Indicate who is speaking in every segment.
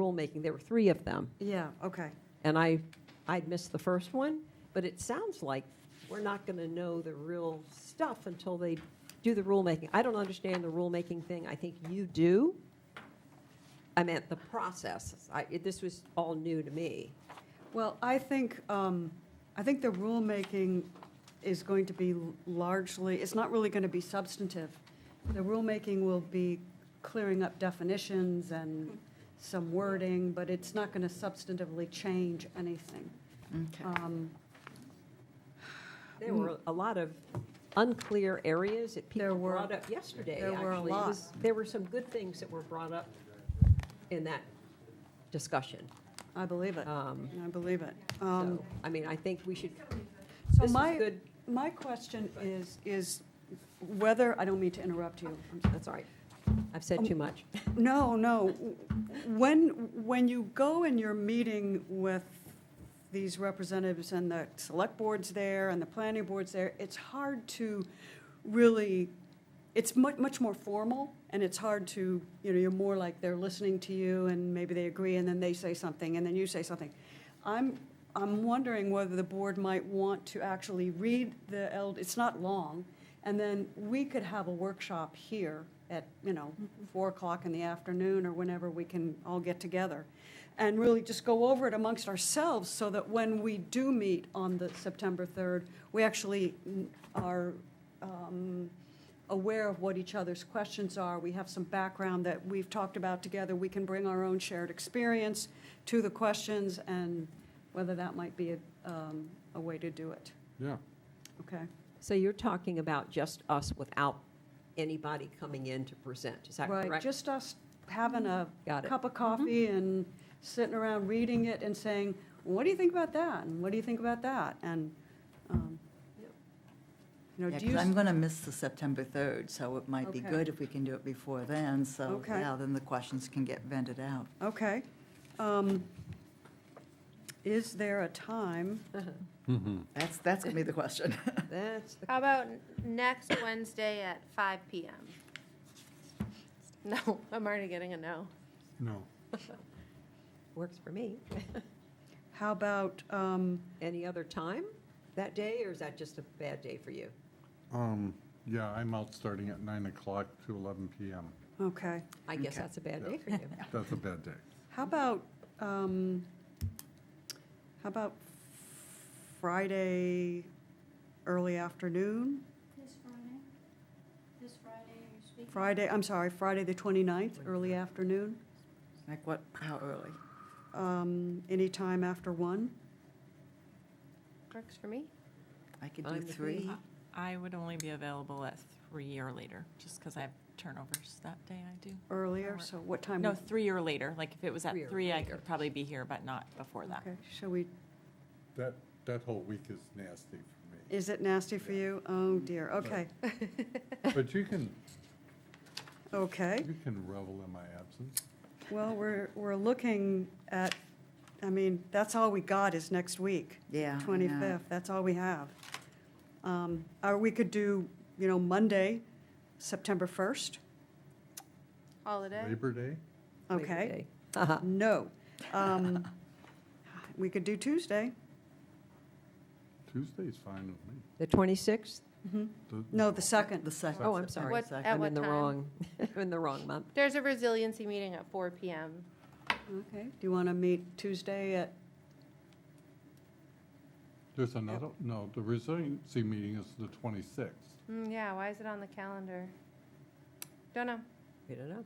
Speaker 1: filmmaking. There were three of them.
Speaker 2: Yeah, okay.
Speaker 1: And I, I'd missed the first one, but it sounds like we're not going to know the real stuff until they do the rulemaking. I don't understand the rulemaking thing. I think you do. I meant the process. I, it- this was all new to me.
Speaker 2: Well, I think, um, I think the rulemaking is going to be largely, it's not really going to be substantive. The rulemaking will be clearing up definitions and some wording, but it's not going to substantively change anything. Um,
Speaker 1: There were a lot of unclear areas that
Speaker 2: There
Speaker 1: people
Speaker 2: were-
Speaker 1: brought up yesterday,
Speaker 2: there
Speaker 1: actually.
Speaker 2: were a
Speaker 1: It
Speaker 2: lot.
Speaker 1: was- There were some good things that were brought up in that discussion.
Speaker 2: I believe it.
Speaker 1: Um,
Speaker 2: I believe it. Um,
Speaker 1: So, I mean, I think we should,
Speaker 2: So
Speaker 1: this is
Speaker 2: my-
Speaker 1: good,
Speaker 2: My question is, is whether, I don't mean to interrupt you, I'm
Speaker 1: that's all right. Um, I've said too much.
Speaker 2: No, no. When, when you go and you're meeting with these representatives and the select boards there and the planning boards there, it's hard to really, it's much, much more formal and it's hard to, you know, you're more like they're listening to you and maybe they agree and then they say something and then you say something. I'm, I'm wondering whether the board might want to actually read the, L- it's not long, and then we could have a workshop here at, you know, four o'clock in the afternoon or whenever we can all get together. And really just go over it amongst ourselves so that when we do meet on the September third, we actually mm, are um, aware of what each other's questions are. We have some background that we've talked about together. We can bring our own shared experience to the questions and whether that might be a, um, a way to do it.
Speaker 3: Yeah,
Speaker 2: Okay?
Speaker 1: So you're talking about just us without anybody coming in to present, is that
Speaker 2: Right,
Speaker 1: correct?
Speaker 2: just us having a
Speaker 1: Got it. Mm-hmm.
Speaker 2: cup of coffee and sitting around reading it and saying, what do you think about that? And what do you think about that? And, um,
Speaker 1: Yep.
Speaker 2: you know,
Speaker 4: Yeah,
Speaker 2: do
Speaker 4: 'cause
Speaker 2: you,
Speaker 4: I'm going to miss the September 3rd, so it might be
Speaker 2: Okay.
Speaker 4: good if we can do it before then, so,
Speaker 2: Okay.
Speaker 4: yeah, then the questions can get vented out.
Speaker 2: okay. Um, Is there a time?
Speaker 4: That's, that's going to be the question.
Speaker 1: That's the
Speaker 5: How about next Wednesday at five PM? No, I'm already getting a no.
Speaker 3: no.
Speaker 1: Works for me.
Speaker 2: How about, um,
Speaker 1: Any other time that day, or is that just a bad day for you?
Speaker 3: Um, yeah, I'm out starting at nine o'clock to eleven PM.
Speaker 2: okay.
Speaker 1: I guess
Speaker 4: Okay.
Speaker 1: that's a bad day for you.
Speaker 3: That's a bad day.
Speaker 2: How about, um, how about Friday, early afternoon?
Speaker 6: This Friday? This Friday, are you speaking?
Speaker 2: Friday, I'm sorry, Friday the 29th, early afternoon?
Speaker 4: Like what, how early?
Speaker 2: Um, Anytime after one?
Speaker 5: Works for me.
Speaker 4: I could
Speaker 1: Fine
Speaker 4: do
Speaker 1: with me.
Speaker 4: three.
Speaker 7: I would only be available at three or later, just because I have turnovers that day I do.
Speaker 2: Earlier,
Speaker 7: Or-
Speaker 2: so what time?
Speaker 7: No,
Speaker 2: would-
Speaker 7: three or later, like if it was at
Speaker 1: Three or
Speaker 7: three, I
Speaker 1: later.
Speaker 7: could probably be here, but not before that.
Speaker 2: Okay, shall we,
Speaker 3: That, that whole week is nasty for
Speaker 2: is it nasty for you? Oh, dear, okay,
Speaker 3: me. But you can,
Speaker 2: okay.
Speaker 3: you can revel in my absence.
Speaker 2: Well, we're, we're looking at, I mean, that's all we got is next week.
Speaker 4: Yeah. I know.
Speaker 2: 25th, that's all we have. Um, Or we could do, you know, Monday, September 1st,
Speaker 5: Holiday.
Speaker 3: Labor Day?
Speaker 1: Labor
Speaker 2: okay? Uh,
Speaker 1: Day. Uh-huh.
Speaker 2: No. Um, We could do Tuesday,
Speaker 3: Tuesday's fine with me.
Speaker 1: The 26th?
Speaker 3: Th-
Speaker 2: no, the 2nd.
Speaker 4: The second.
Speaker 1: Oh, I'm sorry.
Speaker 4: September
Speaker 5: What-
Speaker 4: second.
Speaker 5: At
Speaker 1: I'm in the
Speaker 5: time?
Speaker 1: wrong, I'm in the wrong month.
Speaker 5: There's a resiliency meeting at four PM.
Speaker 2: Okay, do you want to meet Tuesday at,
Speaker 3: There's another, no, the resiliency meeting is the twenty-sixth.
Speaker 5: Mm, yeah, why is it on the calendar? Don't know.
Speaker 1: We don't know.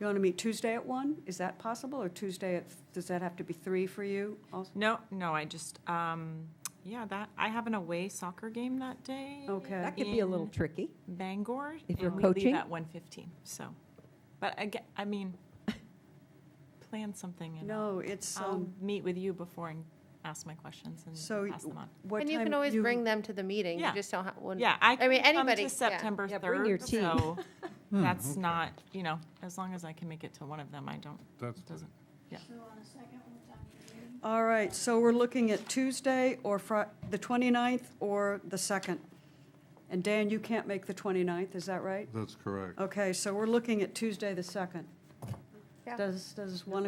Speaker 2: you want to meet Tuesday at 1? Is that possible, or Tuesday at, does that have to be 3 for you also?
Speaker 7: No, no, I just, um, yeah, that, I have an away soccer game that day.
Speaker 2: Okay.
Speaker 1: That could be a little
Speaker 7: in
Speaker 1: tricky.
Speaker 7: Bangor.
Speaker 1: If you're
Speaker 7: and we
Speaker 1: coaching?
Speaker 7: leave at one fifteen, so, but I get, I mean, plan something and I'll-
Speaker 2: No, it's,
Speaker 7: I'll
Speaker 2: um,
Speaker 7: meet with you before and ask my questions
Speaker 2: So
Speaker 7: and pass them on.
Speaker 2: what time?
Speaker 5: And you can always bring them to the meeting. You
Speaker 7: Yeah.
Speaker 5: just don't have, wouldn't-
Speaker 7: Yeah, I
Speaker 5: mean,
Speaker 7: can come
Speaker 5: anybody, yeah.
Speaker 7: to September
Speaker 1: Yeah, bring your
Speaker 7: third,
Speaker 1: team.
Speaker 7: so that's not, you know, as long as I can make it to one of them, I don't,
Speaker 3: That's good.
Speaker 7: doesn't, yeah.
Speaker 6: So on the second, what time are you leaving?
Speaker 2: All right, so we're looking at Tuesday or Fri, the 29th or the 2nd. And Dan, you can't make the 29th, is that right?
Speaker 3: That's correct.
Speaker 2: Okay, so we're looking at Tuesday, the 2nd.
Speaker 5: Yeah.
Speaker 2: Does, does one